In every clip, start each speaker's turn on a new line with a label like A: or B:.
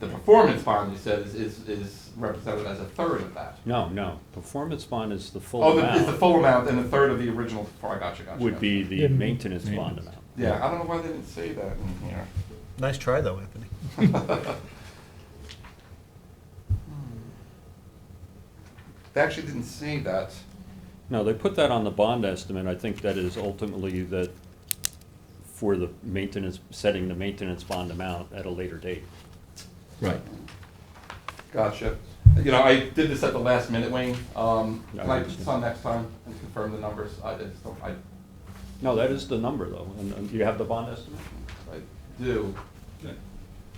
A: The performance bond, you said, is, is, is represented as a third of that.
B: No, no, performance bond is the full
A: Oh, the- it's the
B: amount,
A: full amount and a third of the original, oh, I got you, got you.
B: would
A: got
B: be
A: you.
B: the maintenance bond amount.
A: Yeah, I don't know why they didn't say that in here.
C: Nice try though, Anthony.
A: They actually didn't say that.
B: No, they put that on the bond estimate, I think that is ultimately that for the maintenance, setting the maintenance bond amount at a later date.
D: Right.
A: Gotcha. You know, I did this at the last minute, Wayne. Um,
B: Yeah, I
A: can I
B: understand.
A: just on next time and confirm the numbers? I just don't, I,
B: No, that is the number though, and, and you have the bond estimate?
A: I do.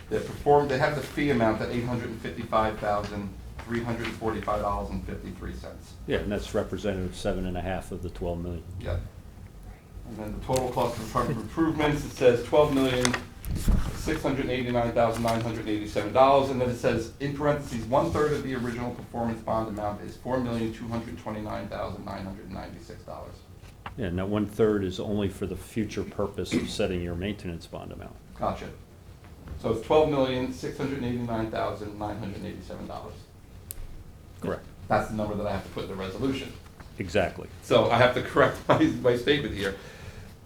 A: They perform, they have the fee amount at eight hundred and fifty-five thousand, three hundred and forty-five dollars and fifty-three cents.
B: Yeah, and that's representative of seven and a half of the twelve million.
A: Yeah. And then the total cost of impro- improvements, it says twelve million, six hundred eighty-nine thousand, nine hundred eighty-seven dollars, and then it says, in parentheses, one-third of the original performance bond amount is four million, two hundred twenty-nine thousand, nine hundred ninety-six dollars.
B: Yeah, and that one-third is only for the future purpose of setting your maintenance bond amount.
A: Gotcha. So it's twelve million, six hundred eighty-nine thousand, nine hundred eighty-seven dollars.
B: Correct.
A: That's the number that I have to put in the resolution.
B: Exactly.
A: So I have to correct my, my statement here.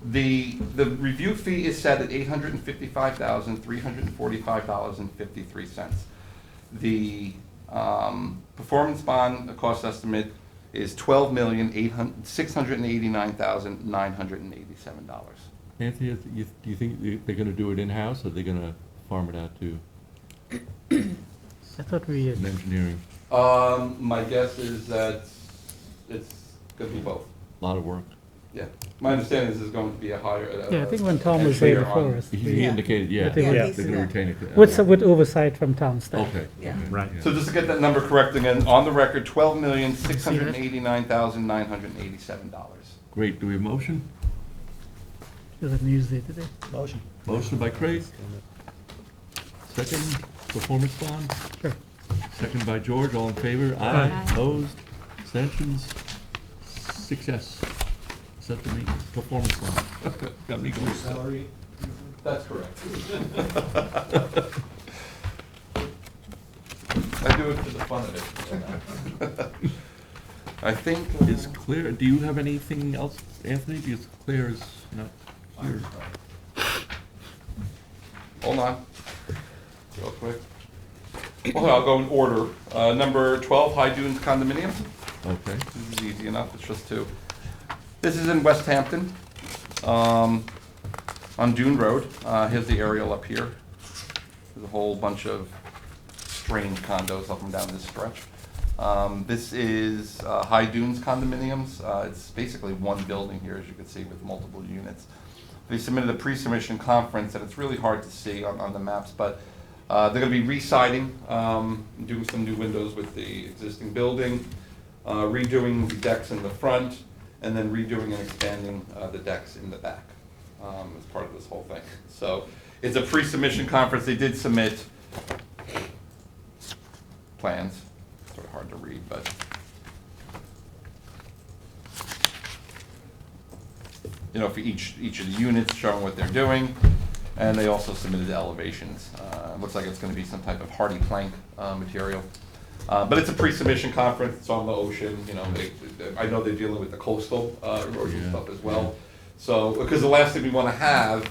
A: The, the review fee is set at eight hundred and fifty-five thousand, three hundred and forty-five dollars and fifty-three cents. The, um, performance bond, the cost estimate is twelve million, eight hun, six hundred and eighty-nine thousand, nine hundred and eighty-seven dollars.
D: Anthony, is- you- do you think they- they're gonna do it in-house, or they're gonna farm it out to
E: I thought we had
D: an engineering?
A: Um, my guess is that it's gonna be both,
D: Lot of work.
A: yeah. My understanding is it's going to be a higher, uh.
E: Yeah, I think when Tom was there before us,
D: He- He
E: we-
D: indicated, yeah,
E: I think
D: they're
E: we-
D: gonna retain it. uh,
E: with, with oversight from Tom's staff.
D: Okay.
F: Yeah.
D: okay,
B: Right.
A: So just to get that number correct again, on the record, twelve million, six hundred and eighty-nine thousand, nine hundred and eighty-seven dollars.
D: Great, do we have a motion?
E: There's a news day today.
C: Motion.
D: Motion by Craig. Second, performance bond,
E: Sure.
D: second by George, all in favor? Aye. Opposed, abstentions, six yes. Set the meeting, performance bond. Got me going.
A: That's correct. I do it for the fun of it. you know. I think. uh,
D: Is clear, do you have anything else, Anthony? Because Claire is not here.
A: Hold on, real quick. Well, I'll go in order. Uh, number twelve, High Dunes condominium.
D: Okay.
A: This is easy enough, it's just two. This is in West Hampton, um, on Dune Road. Uh, here's the aerial up here. There's a whole bunch of strange condos up and down this stretch. Um, this is, uh, High Dunes condominiums. Uh, it's basically one building here, as you can see, with multiple units. They submitted a pre-submission conference, and it's really hard to see on, on the maps, but, uh, they're gonna be re-siding, um, doing some new windows with the existing building uh, redoing the decks in the front, and then redoing and expanding uh, the decks in the back um, as part of this whole thing. So it's a pre-submission conference. They did submit plans, sort of hard to read, but. You know, for each, each of the units showing what they're doing, and they also submitted the elevations. Uh, it looks like it's gonna be some type of hardy plank, uh, material. Uh, but it's a pre-submission conference, it's on the ocean, you know, they, they- I know they're dealing with the coastal, uh, erosion
D: Yeah.
A: stuff as well. So, because the last thing we wanna have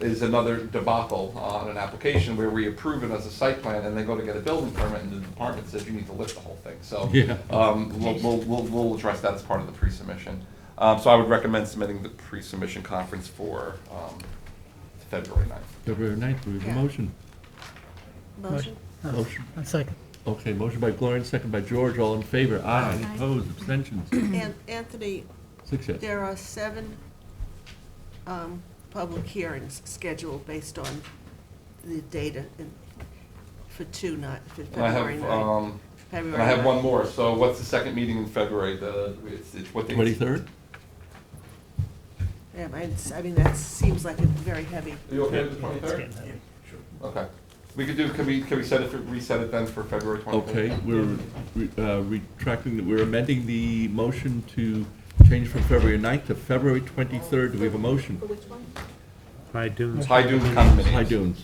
A: is another debacle on an application where we approve it as a site plan and then go to get a building permit and the department says you need to lift the whole thing, so.
D: Yeah.
A: Um, we'll, we'll, we'll, we'll address that as part of the pre-submission. Um, so I would recommend submitting the pre-submission conference for, um, February ninth.
D: February ninth, we have a
F: Yeah.
D: motion.
F: Motion.
D: Motion.
E: A second.
D: Okay, motion by Gloria, second by George, all in favor? Aye.
F: Aye.
D: Opposed, abstentions?
F: An- Anthony,
D: Six yes.
F: there are seven um, public hearings scheduled based on the data in- for two, not, for
A: And I
F: February
A: have,
F: 9.
A: um, and
F: February
A: I have one
F: 9.
A: more, so what's the second meeting in February, the, it's, it's what day?
D: Twenty-third?
F: Yeah, I I mean, that seems like a very heavy,
A: Are you okay with the twenty-third? Okay, we could do, can we, can we set it, for reset it then for February twenty-third?
D: Okay, we're re- uh, retracting, the- we're amending the motion to change from February ninth to February twenty-third. Do we have a motion?
B: I do.
A: High Dunes condominiums.
D: High Dunes.